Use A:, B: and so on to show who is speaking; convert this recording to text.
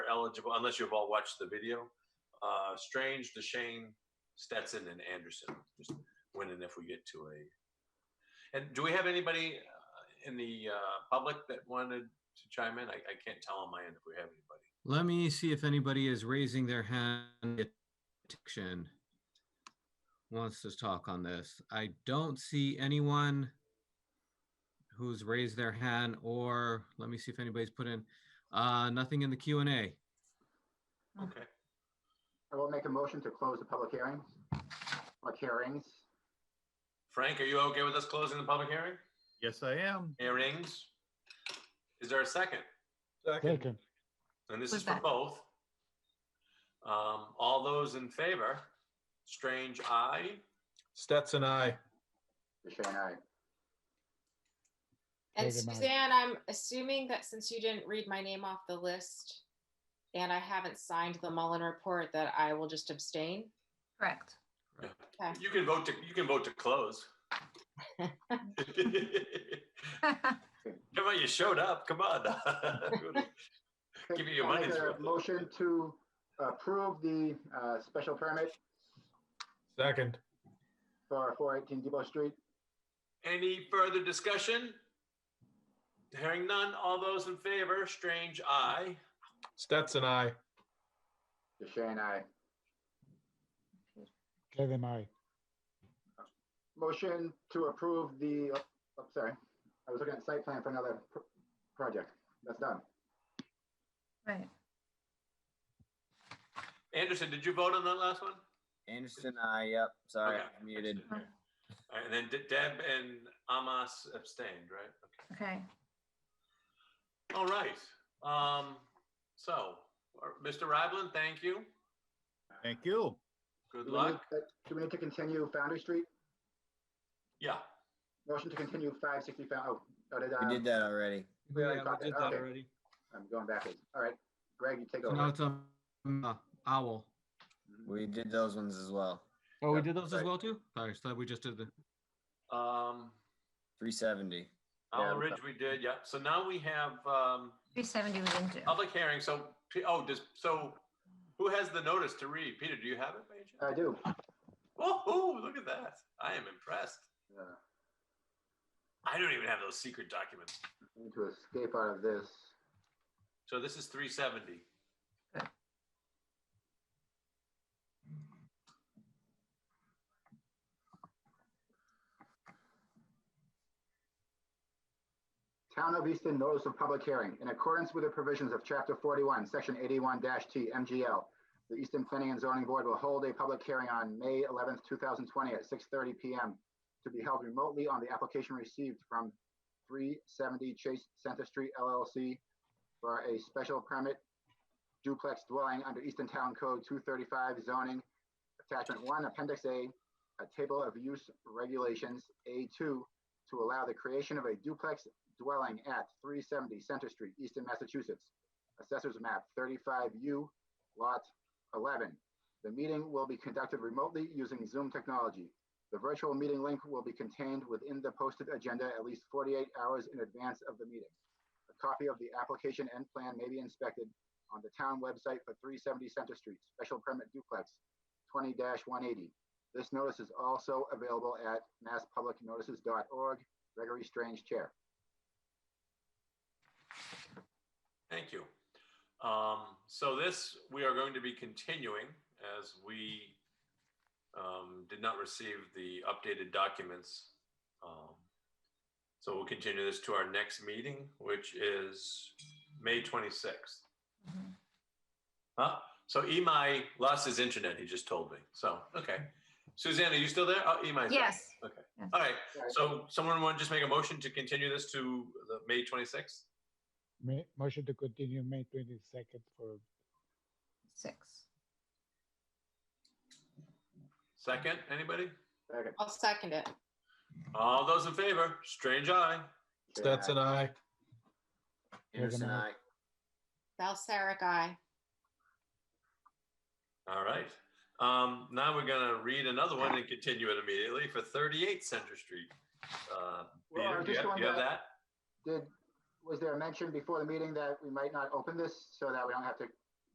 A: eligible, unless you've all watched the video. Uh, Strange, DeShane, Stetson, and Anderson. Just winning if we get to a. And do we have anybody uh, in the uh, public that wanted to chime in? I, I can't tell on my end if we have anybody.
B: Let me see if anybody is raising their hand. Action wants to talk on this. I don't see anyone who's raised their hand or let me see if anybody's put in, uh, nothing in the Q and A.
A: Okay.
C: I will make a motion to close the public hearings. Public hearings.
A: Frank, are you okay with us closing the public hearing?
D: Yes, I am.
A: Hearings? Is there a second?
E: Second.
A: And this
F: Was
A: is for
F: that-
A: both. Um, all those in favor? Strange, aye.
D: Stetson, I.
C: DeShane, aye.
F: And
E: Megan Mike.
F: Suzanne, I'm assuming that since you didn't read my name off the list and I haven't signed the Mullen report, that I will just abstain.
G: Correct.
F: Okay.
A: You can vote to, you can vote to close. Come on, you showed up. Come on. Give you your
C: I'll make
A: money's
C: a
A: worth.
C: Motion to approve the uh, special permit
D: Second.
C: for 418 Depot Street.
A: Any further discussion? Hearing none, all those in favor, strange, aye.
D: Stetson, I.
C: DeShane, aye.
E: Kevin, I.
C: Motion to approve the, oh, sorry, I was looking at site plan for another pr- project. That's done.
G: Right.
A: Anderson, did you vote on that last one?
H: Anderson, I, yep, sorry,
A: Okay.
H: I muted.
A: All right, And then De- Deb and Amos abstained, right? Okay.
G: Okay.
A: All right. Um, so, uh, Mr. Ryblin, thank you.
D: Thank you.
A: Good
C: Do we need-
A: luck.
C: uh, Do we need to continue Foundry Street?
A: Yeah,
C: Motion to continue 560 Found, oh, oh, did,
H: We did
C: uh,
H: that already.
C: We already
B: Yeah,
C: got
B: we did
C: that.
B: that
C: Okay.
B: already.
C: I'm going backwards. All right, Greg, you take
B: So now
C: over.
B: it's um, uh, owl.
H: We did those ones as well.
B: Oh, we
C: Yep,
B: did those as
C: right.
B: well too? Sorry, I thought we just did the,
A: um,
H: Three seventy.
A: Owl
H: we-
A: Ridge Oh, we did, yeah. So now we have, um,
G: 370 was in June.
A: public hearing, so, P- oh, does, so who has the notice to read? Peter, do you have it? by any chance?
C: I do.
A: Whoa, look at that. I am impressed.
C: Uh,
A: I don't even have those secret documents.
C: I Need to escape out of this.
A: So this is three seventy.
C: Town of Easton notice of public hearing. In accordance with the provisions of Chapter 41, Section 81-T MGL, the Easton Planning and Zoning Board will hold a public hearing on May 11th, 2020 at 6:30 PM to be held remotely on the application received from 370 Chase Center Street LLC for a special permit duplex dwelling under Easton Town Code 235 zoning, Attachment 1, Appendix A, a table of use regulations, A2, to allow the creation of a duplex dwelling at 370 Center Street, Easton, Massachusetts. Assessors map 35U, lot 11. The meeting will be conducted remotely using Zoom technology. The virtual meeting link will be contained within the posted agenda at least 48 hours in advance of the meeting. A copy of the application and plan may be inspected on the town website for 370 Center Street, special permit duplex, 20-180. This notice is also available at masspublicnotices.org. Gregory Strange, Chair.
A: Thank you. Um, so this, we are going to be continuing as we um, did not receive the updated documents. Um, so we'll continue this to our next meeting, which is May 26th.
G: Mhm.
A: Huh? So Imai lost his internet, he just told me. So, okay. Suzanne, are you still there? Oh, Imai's there.
G: Yes.
A: All right. So someone want to just make a motion to continue this to the May 26th?
E: May, motion to continue May twenty-second for,
G: Six.
A: Second, anybody?
C: Second.
F: I'll second it.
A: All those in favor, strange eye.
D: Stetson, I.
H: Anderson,
E: Kevin, I.
H: I.
F: Balsaric, aye.
A: All right. Um, now we're gonna read another one and continue it immediately for thirty-eight Center Street. Uh,
C: Well, I
A: Peter,
C: was
A: do you
C: just
A: have
C: going
A: you have
C: back-
A: that?
C: Did, was there a mention before the meeting that we might not open this so that we don't have to